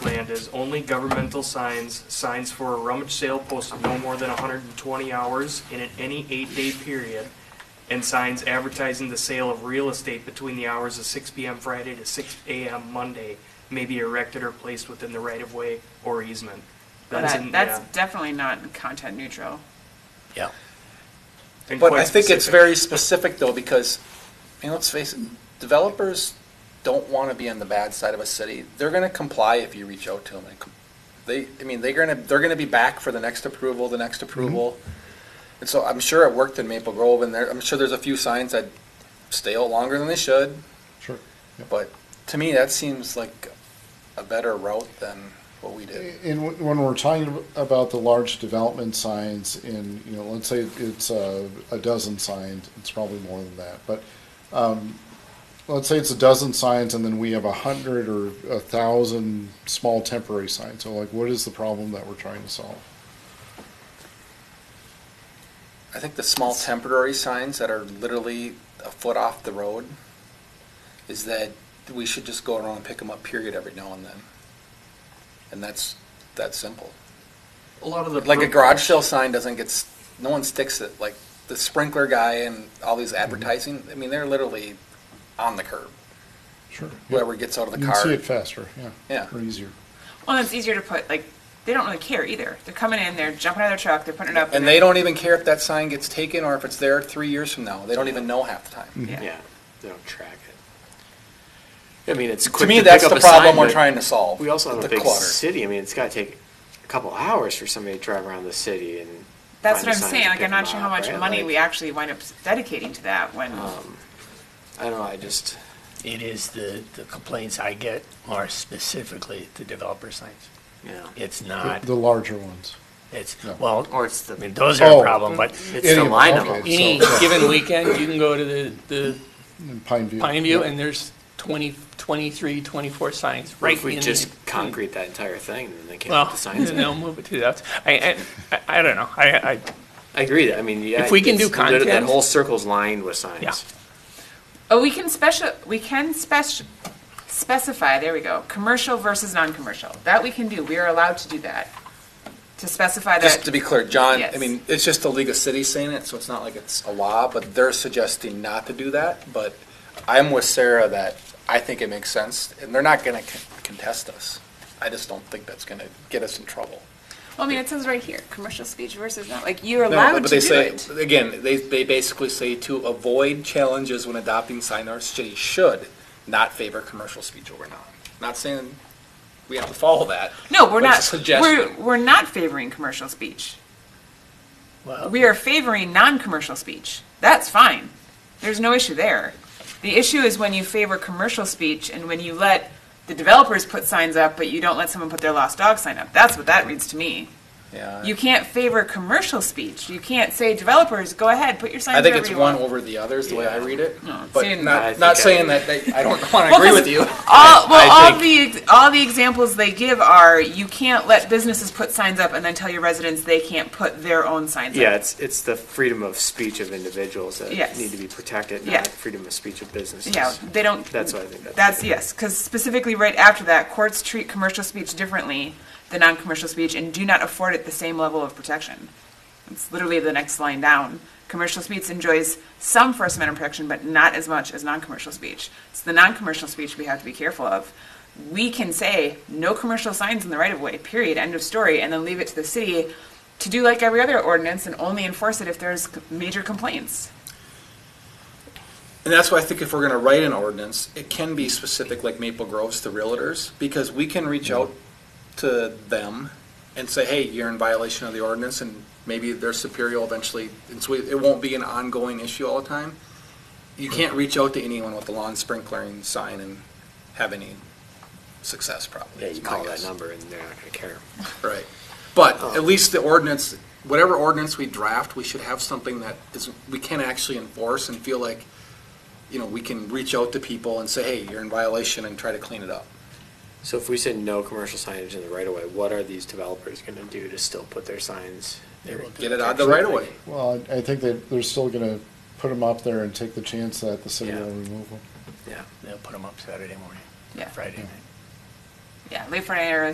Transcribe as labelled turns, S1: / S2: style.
S1: understand is only governmental signs, signs for a rummage sale posted no more than hundred and twenty hours in an- any eight-day period, and signs advertising the sale of real estate between the hours of six PM Friday to six AM Monday may be erected or placed within the right-of-way or easement. That's in,
S2: That, that's
S1: yeah,
S2: definitely not content neutral.
S3: Yeah.
S1: and
S3: But
S1: quite
S3: I think it's
S1: specific.
S3: very specific though, because, I mean, let's face it, developers don't want to be on the bad side of a city. They're going to comply if you reach out to them. They, I mean, they're going to, they're going to be back for the next approval, the next approval. And so I'm sure it worked in Maple Grove and there, I'm sure there's a few signs that stay out longer than they should.
S4: Sure. Yep.
S3: But to me, that seems like a better route than what we did.
S4: And when- when we're talking about the large development signs in, you know, let's say it's a, a dozen signs, it's probably more than that, but, um, let's say it's a dozen signs and then we have a hundred or a thousand small temporary signs. So like, what is the problem that we're trying to solve?
S3: I think the small temporary signs that are literally a foot off the road is that we should just go around and pick them up period every now and then. And that's, that simple.
S1: A lot of the.
S3: Like a garage sale sign doesn't get, s- no one sticks it, like the sprinkler guy and all these
S4: Mm-hmm.
S3: advertising, I mean, they're literally on the curb.
S4: Sure.
S3: Whoever gets out of the
S4: You can see
S3: car.
S4: it faster, yeah.
S3: Yeah.
S4: Or easier.
S2: Well, it's easier to put, like, they don't really care either. They're coming in, they're jumping out of their truck, they're putting it up.
S3: And they don't even care if that sign gets taken or if it's there three years from now. They don't even know half the time.
S4: Mm-hmm.
S2: Yeah.
S5: Yeah, they don't track it. I mean, it's
S3: To
S5: quick
S3: me,
S5: to
S3: that's
S5: pick
S3: the
S5: up a sign,
S3: problem we're
S5: but
S3: trying to solve.
S5: We also have
S3: the
S5: a big
S3: clutter.
S5: city. I mean, it's got to take a couple hours for somebody to drive around the city and.
S2: That's
S5: find
S2: what
S5: a
S2: I'm
S5: sign
S2: saying,
S5: to
S2: like,
S5: pick
S2: I'm not
S5: 'em
S2: sure how
S5: up,
S2: much
S5: right?
S2: money
S5: Like,
S2: we actually wind up dedicating to that when,
S3: Um,
S5: I don't know. I just
S6: It is the, the complaints I get are specifically the developer signs.
S5: yeah.
S6: It's
S4: The-
S6: not,
S4: The larger ones.
S6: it's,
S4: No.
S6: well,
S7: Or it's the,
S6: I mean, those are
S4: Oh.
S6: a problem, but
S5: It's the
S4: Any-
S5: line of
S4: okay,
S5: them.
S7: any
S4: so-
S7: given weekend, you can go to the, the
S4: in Pine View.
S7: Pine View and there's 20, 23, 24 signs right
S5: If we
S7: in
S5: just
S7: the-
S5: concrete that entire thing, then they can't
S7: Well,
S5: put the signs
S7: then
S5: in.
S7: they'll move it to that. I, I, I- I don't know. I, I,
S5: I agree that, I mean, yeah.
S7: If we can
S5: it's-
S7: do
S5: that- That
S7: content-
S5: whole circle's lined with signs.
S7: Yeah.
S2: Oh, we can special, we can spec, specify, there we go, commercial versus non-commercial. That we can do, we are allowed to do that. To specify
S3: Just to
S2: that,
S3: be clear, John, I
S2: Yes.
S3: mean, it's just the League of Cities saying it, so it's not like it's a law, but they're suggesting not to do that. But I'm with Sarah that I think it makes sense, and they're not gonna con- contest us. I just don't think that's gonna get us in trouble.
S2: well, I mean, it says right here, commercial speech versus not, like, you're
S3: No,
S2: allowed to
S3: but they
S2: do
S3: say
S2: it.
S3: Again, they, they basically say to avoid challenges when adopting sign our city should not favor commercial speech over non. Not saying we have to follow that.
S2: No, we're
S3: but it's a
S2: not, we're,
S3: suggestion.
S2: we're not favoring commercial speech.
S6: well,
S2: We are favoring non-commercial speech. That's fine. There's no issue there. The issue is when you favor commercial speech and when you let the developers put signs up, but you don't let someone put their lost dog sign up. That's what that reads to me.
S3: Yeah.
S2: You can't favor commercial speech. You can't say developers, go ahead, put your signs
S3: I think
S2: wherever
S3: it's
S2: you
S3: one
S2: want."
S3: over the others, the way I read it.
S2: No, it's
S3: But
S2: saying-
S5: I
S3: not,
S5: think
S3: not
S5: I-
S3: saying that, they- I don't want to
S2: Well,
S3: agree
S2: 'cause
S3: with you.
S2: All, well,
S5: I
S2: all the ex- all the examples they give are you can't let businesses put signs up and then tell your residents they can't put their own signs
S5: Yeah,
S2: up.
S5: it's, it's the freedom of speech of individuals that
S2: Yes.
S5: need to be protected,
S2: Yeah.
S5: not freedom of speech of businesses.
S2: Yeah, they don't.
S5: That's what I think that's-
S2: That's yes, because specifically right after that, courts treat commercial speech differently than non-commercial speech and do not afford it the same level of protection. It's literally the next line down. Commercial speech enjoys some First Amendment protection, but not as much as non-commercial speech. It's the non-commercial speech we have to be careful of. We can say no commercial signs in the right of way. Period. End of story, and then leave it to the city to do like every other ordinance and only enforce it if there's c- major complaints.
S3: And that's why I think if we're going to write an ordinance, it can be specific like Maple Groves to realtors, because we can reach out to them and say, hey, you're in violation of the ordinance, and maybe their superior will eventually, and so it won't be an ongoing issue all the time. You can't reach out to anyone with a lawn sprinkling sign and have any success probably.
S5: Yeah,
S3: is
S5: you
S3: my
S5: call that
S3: guess.
S5: number and they're not gonna care.
S3: Right. But at least the ordinance, whatever ordinance we draft, we should have something that is, we can actually enforce and feel like, you know, we can reach out to people and say, hey, you're in violation and try to clean it up.
S5: So if we said no commercial signage in the right of way, what are these developers gonna do to still put their signs?
S6: they will do
S3: Get
S6: it.
S3: it out of the right of way.
S4: Well, I I think that they're still gonna put them up there and take the chance that the city
S5: Yeah.
S4: will remove them.
S5: Yeah.
S6: They'll put them up Saturday morning,
S2: Yeah,
S6: Friday night.
S2: yeah. Leave for an